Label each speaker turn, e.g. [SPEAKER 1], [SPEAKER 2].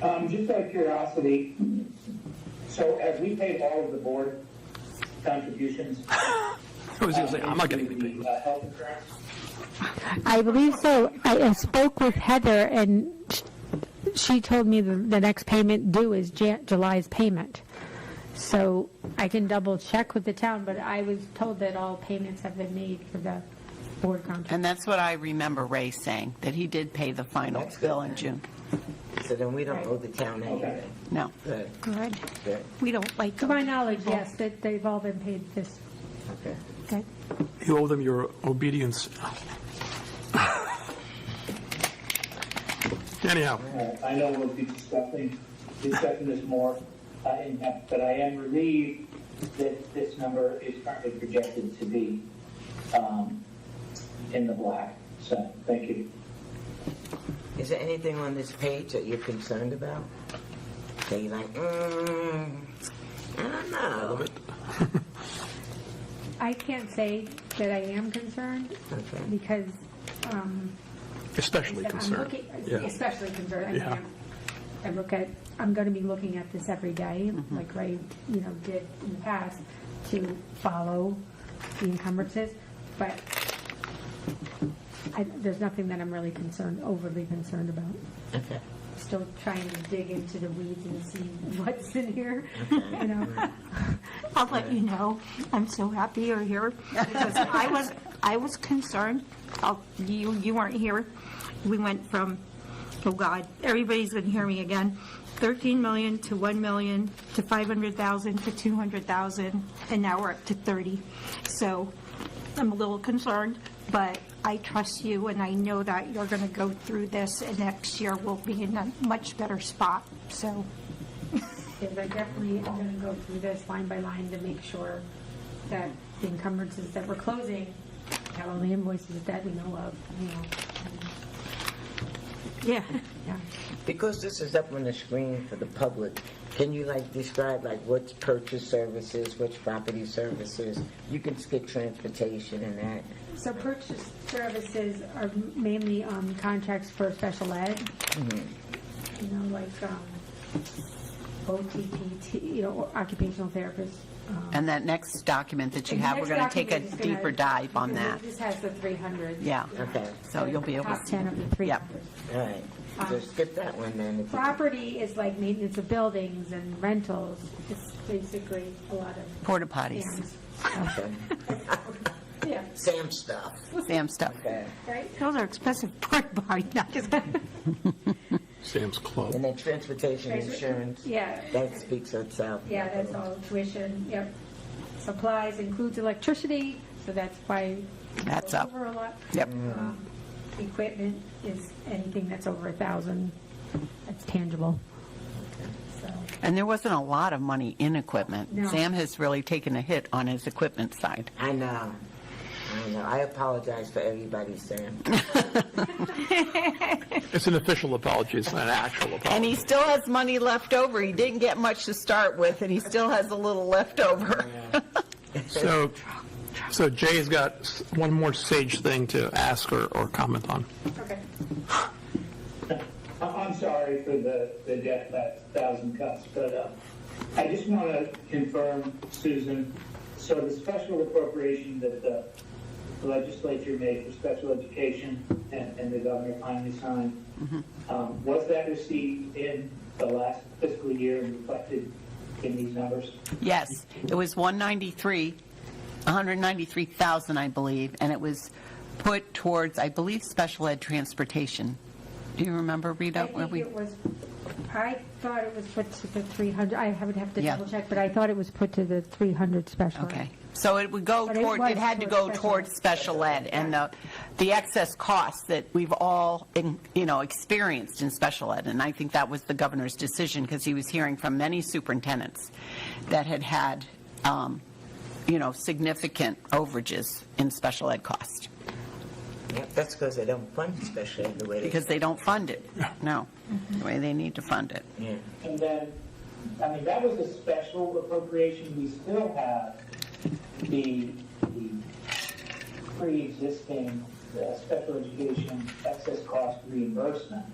[SPEAKER 1] Um, just out of curiosity, so have we paid all of the board contributions?
[SPEAKER 2] I was gonna say, I'm not getting
[SPEAKER 1] to
[SPEAKER 2] anything.
[SPEAKER 1] the, uh, Health insurance?
[SPEAKER 3] I believe so. I I spoke with Heather, and sh- she told me the, the next payment due is Jan- July's payment. So I can double check with the town, but I was told that all payments have been made for the board contract.
[SPEAKER 4] And that's what I remember Ray saying, that he did pay the final bill in June.
[SPEAKER 5] So then we don't owe the town anything.
[SPEAKER 4] No.
[SPEAKER 5] Good,
[SPEAKER 3] Good.
[SPEAKER 5] good,
[SPEAKER 4] We don't like
[SPEAKER 3] To my knowledge, yes, that they've all been paid this,
[SPEAKER 5] okay.
[SPEAKER 3] okay?
[SPEAKER 2] You owe them your obedience. Anyhow,
[SPEAKER 1] Uh, I know we'll be discussing, discussing this more uh, in depth, but I am relieved that this number is currently projected to be um, in the black. So, thank you.
[SPEAKER 5] Is there anything on this page that you're concerned about? That you're like, mm, I don't know.
[SPEAKER 3] I can't say that I am concerned
[SPEAKER 5] Okay.
[SPEAKER 3] because, um,
[SPEAKER 2] especially
[SPEAKER 3] I'm
[SPEAKER 2] concerned.
[SPEAKER 3] looking-
[SPEAKER 2] Yeah.
[SPEAKER 3] Especially concerned. I mean,
[SPEAKER 2] Yeah.
[SPEAKER 3] I'm- I look at, I'm going to be looking at this every day, like Ray, you know, did in the past, to follow the encumbrances, but I, there's nothing that I'm really concerned, overly concerned about.
[SPEAKER 5] Okay.
[SPEAKER 3] Still trying to dig into the weeds and see what's in here, you know?
[SPEAKER 6] I'll let you know. I'm so happy you're here because I was, I was concerned. I'll- You, you weren't here. We went from, oh God, everybody's going to hear me again, 13 million to 1 million to 500,000 to 200,000, and now we're up to 30. So I'm a little concerned, but I trust you and I know that you're going to go through this and next year we'll be in a much better spot. So
[SPEAKER 3] Because I definitely am going to go through this line by line to make sure that the encumbrances that we're closing have all the invoices that we know of, you know.
[SPEAKER 6] Yeah.
[SPEAKER 3] Yeah.
[SPEAKER 5] Because this is up on the screen for the public, can you like describe like what's purchase services, what's property services? You can skip transportation and that.
[SPEAKER 3] So purchase services are mainly um, contracts for special ed. You know, like um, OTPT, you know, occupational therapists. um,
[SPEAKER 4] And that next document that you
[SPEAKER 3] The
[SPEAKER 4] have, we're
[SPEAKER 3] next
[SPEAKER 4] going to take a
[SPEAKER 3] document is gonna-
[SPEAKER 4] deeper dive on
[SPEAKER 3] because
[SPEAKER 4] that.
[SPEAKER 3] This has the 300.
[SPEAKER 4] Yeah.
[SPEAKER 5] Okay.
[SPEAKER 4] So you'll be able
[SPEAKER 3] Top 10
[SPEAKER 4] to.
[SPEAKER 3] of the 300.
[SPEAKER 5] All right.
[SPEAKER 3] Um,
[SPEAKER 5] So skip that one then. if you-
[SPEAKER 3] Property is like maintenance of buildings and rentals. It's basically a lot of
[SPEAKER 4] Porta potties,
[SPEAKER 3] dams.
[SPEAKER 5] Okay.
[SPEAKER 3] Yeah,
[SPEAKER 5] Sam stuff.
[SPEAKER 4] Sam stuff.
[SPEAKER 5] Okay.
[SPEAKER 3] right?
[SPEAKER 6] Those are expensive pork barn. No, just kidding.
[SPEAKER 2] Sam's Club.
[SPEAKER 5] And then transportation
[SPEAKER 3] Transport-
[SPEAKER 5] insurance.
[SPEAKER 3] Yeah.
[SPEAKER 5] That speaks itself.
[SPEAKER 3] Yeah, that's all tuition, yep. Supplies includes electricity, so that's why. it's
[SPEAKER 4] That's up.
[SPEAKER 3] Over a lot.
[SPEAKER 4] Yep.
[SPEAKER 3] Um, Equipment is anything that's over a thousand, that's tangible. So,
[SPEAKER 4] And there wasn't a lot of money in equipment.
[SPEAKER 3] No.
[SPEAKER 4] Sam has really taken a hit on his equipment side.
[SPEAKER 5] I know. I know. I apologize for everybody, Sam.
[SPEAKER 2] It's an official apology, it's not an actual
[SPEAKER 4] And
[SPEAKER 2] apology.
[SPEAKER 4] he still has money left over. He didn't get much to start with, and he still has a little left over.
[SPEAKER 2] So, so Jay's got s- one more sage thing to ask or, or comment on.
[SPEAKER 3] okay.
[SPEAKER 1] I- I'm sorry for the, the death, that thousand cuts, but uh, I just want to confirm, Susan, so the special appropriation that the legislature made for special education and, and the governor finally signed, um, was that received in the last fiscal year and reflected in these numbers?
[SPEAKER 4] Yes, it was 193, 193,000, I believe, and it was put towards, I believe, special ed transportation. Do you remember,
[SPEAKER 3] I
[SPEAKER 4] Rita? where
[SPEAKER 3] think
[SPEAKER 4] we-
[SPEAKER 3] it was, I thought it was put to the three hundred, I would have to
[SPEAKER 4] Yeah.
[SPEAKER 3] double check, but I thought it was put to the three hundred special.
[SPEAKER 4] Okay, so it would go
[SPEAKER 3] But it
[SPEAKER 4] toward,
[SPEAKER 3] was
[SPEAKER 4] it had to
[SPEAKER 3] toward
[SPEAKER 4] go
[SPEAKER 3] special
[SPEAKER 4] towards
[SPEAKER 3] ed.
[SPEAKER 4] special ed, and the, the excess costs that we've all, in- you know, experienced in special ed, and I think that was the governor's decision, because he was hearing from many superintendents that had had, um, you know, significant overages in special ed cost,
[SPEAKER 5] Yep, that's because they don't fund special ed the way they.
[SPEAKER 4] because they don't fund it, no, the way they need to fund it.
[SPEAKER 5] Yeah.
[SPEAKER 1] And then, I mean, that was a special appropriation, we still have the, the pre-existing uh, special education excess cost reimbursement.